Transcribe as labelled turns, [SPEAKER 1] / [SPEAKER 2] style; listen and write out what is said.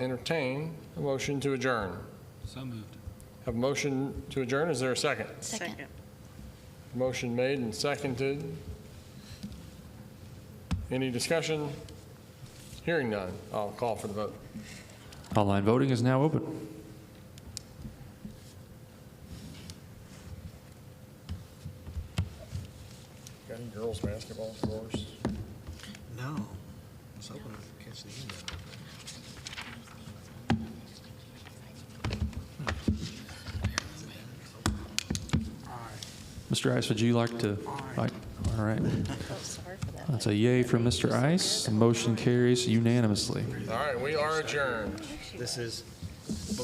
[SPEAKER 1] entertain a motion to adjourn.
[SPEAKER 2] So moved.
[SPEAKER 1] Have a motion to adjourn, is there a second?
[SPEAKER 3] Second.
[SPEAKER 1] Motion made and seconded. Any discussion? Hearing none, I'll call for the vote.
[SPEAKER 4] Online voting is now open.
[SPEAKER 1] Got any girls' basketball scores?
[SPEAKER 5] No. I was hoping I'd catch the end of it.
[SPEAKER 4] Mr. Ice, would you like to? Aye. All right.
[SPEAKER 3] Oh, sorry for that.
[SPEAKER 4] That's a yay from Mr. Ice. The Motion carries unanimously.
[SPEAKER 1] All right, we are adjourned.
[SPEAKER 5] This is